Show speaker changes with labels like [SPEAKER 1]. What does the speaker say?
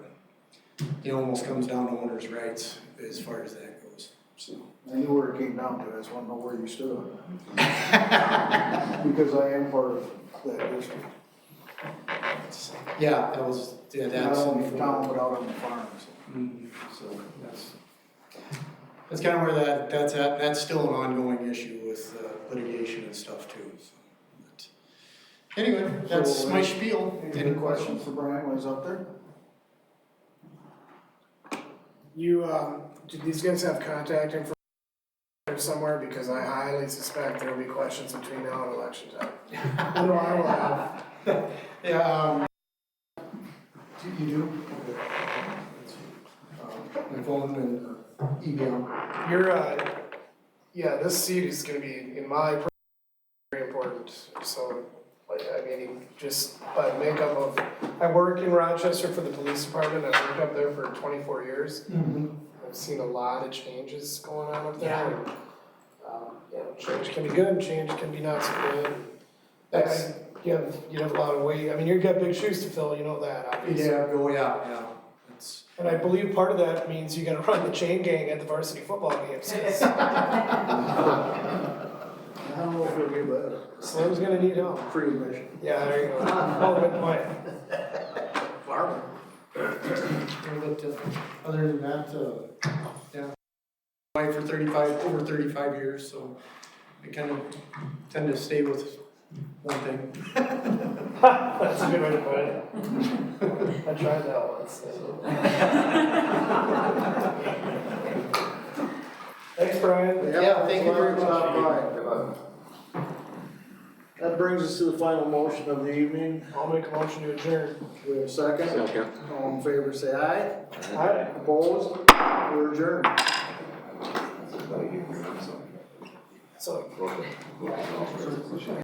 [SPEAKER 1] it almost comes down to owner's rights as far as that goes, so.
[SPEAKER 2] I knew where it came down to, I just wanted to know where you stood on it. Because I am part of that district,
[SPEAKER 1] it's- Yeah, that was, yeah,
[SPEAKER 2] not
[SPEAKER 1] that's.
[SPEAKER 2] only in town, but out on the farms,
[SPEAKER 1] Mhm,
[SPEAKER 2] so.
[SPEAKER 1] That's, that's kind of where that, that's at, that's still an ongoing issue with uh, litigation and stuff too, so. but- Anyway, that's
[SPEAKER 2] So,
[SPEAKER 1] my
[SPEAKER 2] uh,
[SPEAKER 1] spiel,
[SPEAKER 2] Any
[SPEAKER 1] any
[SPEAKER 2] good
[SPEAKER 1] questions?
[SPEAKER 2] questions for Brian while he's up there?
[SPEAKER 3] You, um, do these guys have contact information somewhere? Because I highly suspect there will be questions between now and election time. I know I will have.
[SPEAKER 1] Yeah,
[SPEAKER 2] You- You do?
[SPEAKER 1] um, uh, my phone and uh, email.
[SPEAKER 3] Your, uh, yeah, this seat is gonna be, in my, per- very important, so, like, I mean, just by makeup of, I work in Rochester for the police department, I've worked up there for twenty-four years.
[SPEAKER 2] Mm-hmm.
[SPEAKER 3] I've seen a lot of changes going on up there, and, um, you know, change can be good, change can be not so good. That's, you have, you have a lot of weight, I mean, you've got big shoes to fill, you know that, obviously.
[SPEAKER 1] Yeah, oh, yeah, yeah, that's,
[SPEAKER 3] And I believe part of that means you gotta run the chain gang at the varsity football games.
[SPEAKER 2] I don't know if it'll be that.
[SPEAKER 3] Slim's gonna need help.
[SPEAKER 2] Free admission.
[SPEAKER 3] Yeah, there you go. Oh, good point.
[SPEAKER 2] Farming.
[SPEAKER 1] but, uh, other than that, uh, yeah. Wife for thirty-five, over thirty-five years, so I kind of tend to stay with one thing.
[SPEAKER 3] That's a good way to put it. I tried that once. Thanks, Brian.
[SPEAKER 1] Yeah, thank you very much.
[SPEAKER 2] That brings us to the final motion of the evening.
[SPEAKER 3] I'll make a motion to adjourn.
[SPEAKER 2] We have a second?
[SPEAKER 4] Second.
[SPEAKER 2] All in favor, say aye.
[SPEAKER 3] Aye.
[SPEAKER 2] Opposed? We're adjourned.
[SPEAKER 3] So.